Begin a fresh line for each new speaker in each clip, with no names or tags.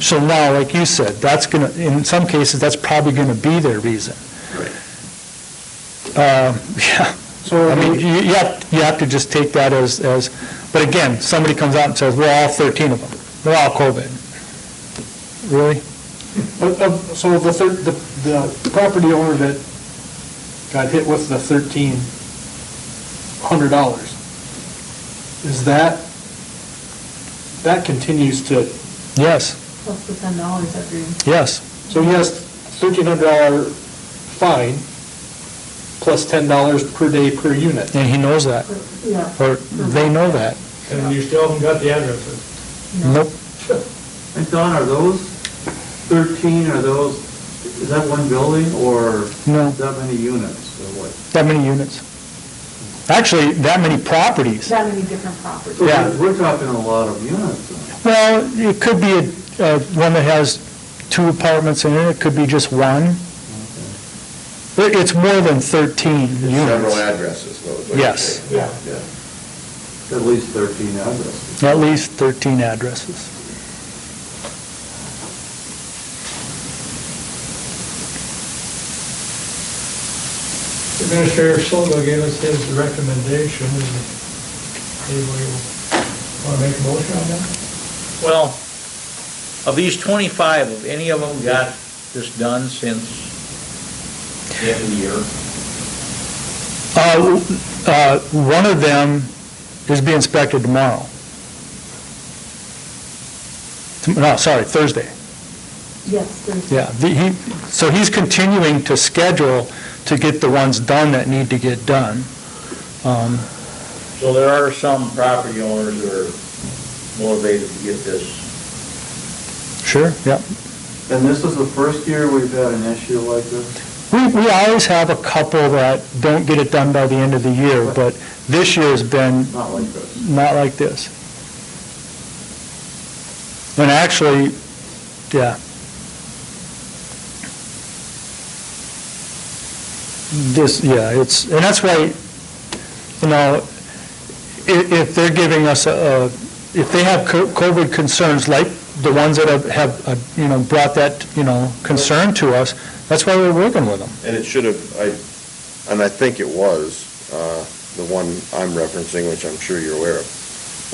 So now, like you said, that's going to, in some cases, that's probably going to be their reason.
Right.
Um, Yeah,
So
I mean, you you have, you have to just take that as, as, but again, somebody comes out and says, we're all 13 of them, they're all COVID. Really?
Of- of- uh, So the third, the, the property owner that got hit with the thirteen hundred dollars, is that, that continues to,
Yes,
Plus the ten dollars every,
yes,
so yes, thirteen hundred dollar fine, plus ten dollars per day per unit.
and he knows that,
yeah.
or they know that.
And you still haven't got the addresses.
no.
Nope,
And Don, are those 13, are those, is that one building or
No.
that many units or what?
that many units. Actually, that many properties.
That many different properties.
So
Yeah.
We're talking a lot of units. then.
Well, it could be a- a, one that has two apartments in it, it could be just one. It- It's more than 13
Several
units,
addresses, though. is what you're
Yes.
saying.
Yeah.
Yeah.
At least 13 addresses.
at least 13 addresses.
Administrator Silva gave us his recommendation. Anybody want to make a motion on that?
Well, of these 25, have any of them got this done since the end of the year?
Uh, uh, One of them is being inspected tomorrow. Tom- No, sorry, Thursday,
Yes, there's.
yeah. The- he- So he's continuing to schedule to get the ones done that need to get done. Um,
So there are some property owners that are motivated to get this.
Sure, yeah.
And this is the first year we've had an issue like this?
We we always have a couple that don't get it done by the end of the year, but this year's been
Not like this.
not like this. And actually, yeah. This, yeah, it's, and that's why, you know, if, if they're giving us a, a- if they have co- COVID concerns, like the ones that have- have, uh, you know, brought that, you know, concern to us, that's why we're working with them.
And it should have, I, and I think it was, uh, the one I'm referencing, which I'm sure you're aware of.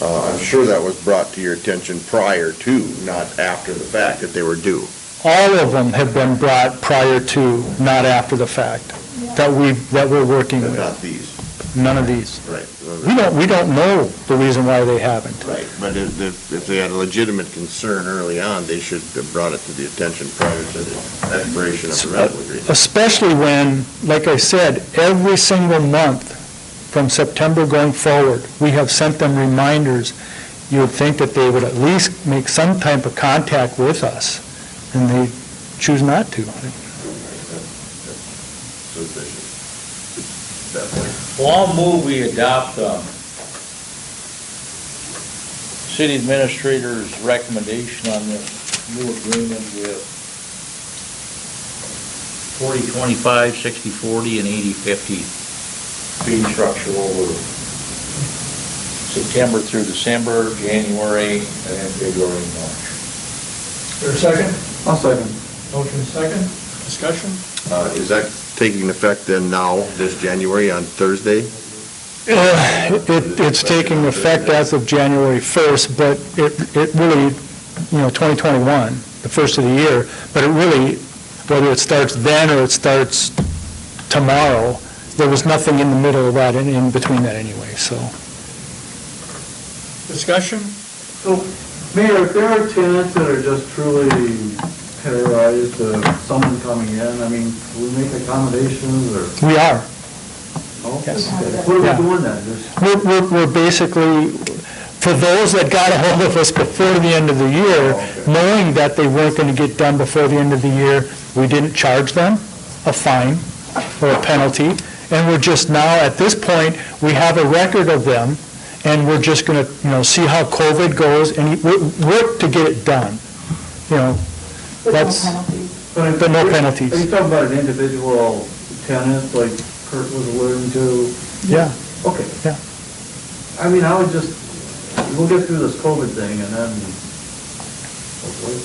Uh, I'm sure that was brought to your attention prior to, not after the fact that they were due.
All of them have been brought prior to, not after the fact, that we, that we're working
But
with.
Not these,
None of these.
right.
We don't, we don't know the reason why they haven't.
Right, but if, if if they had a legitimate concern early on, they should have brought it to the attention prior to the expiration of the rental agreement.
Especially when, like I said, every single month from September going forward, we have sent them reminders. You would think that they would at least make some type of contact with us, and they choose not to.
Suspicious. Definitely.
Well, I'll move we adopt the city administrator's recommendation on the new agreement with 40, 25, 60, 40, and 80, 50 fee structure over September through December, January, and then February, and March.
There's a second?
I'll second.
Motion second, discussion?
Uh, Is that taking effect then now, this January on Thursday?
Uh, It, it's taking effect as of January 1st, but it, it really, you know, 2021, the first of the year, but it really, whether it starts then or it starts tomorrow, there was nothing in the middle of that, and in between that anyway, so.
Discussion?
Mayor, if there are tenants that are just truly terrorized of someone coming in, I mean, we make accommodations or?
We are.
no?
Yes.
What
Yeah.
are we doing then? Just
We're, we're we're basically, for those that got a hold of us before the end of the year, knowing that they weren't going to get done before the end of the year, we didn't charge them a fine or a penalty, and we're just now, at this point, we have a record of them, and we're just going to, you know, see how COVID goes and wo- work to get it done, you know,
With no
That's-
penalties.
But
But no
are you-
penalties.
Are you talking about an individual tenant, like Kurt was alluding to?
yeah.
Okay.
Yeah.
I mean, I would just, we'll get through this COVID thing and then, hopefully.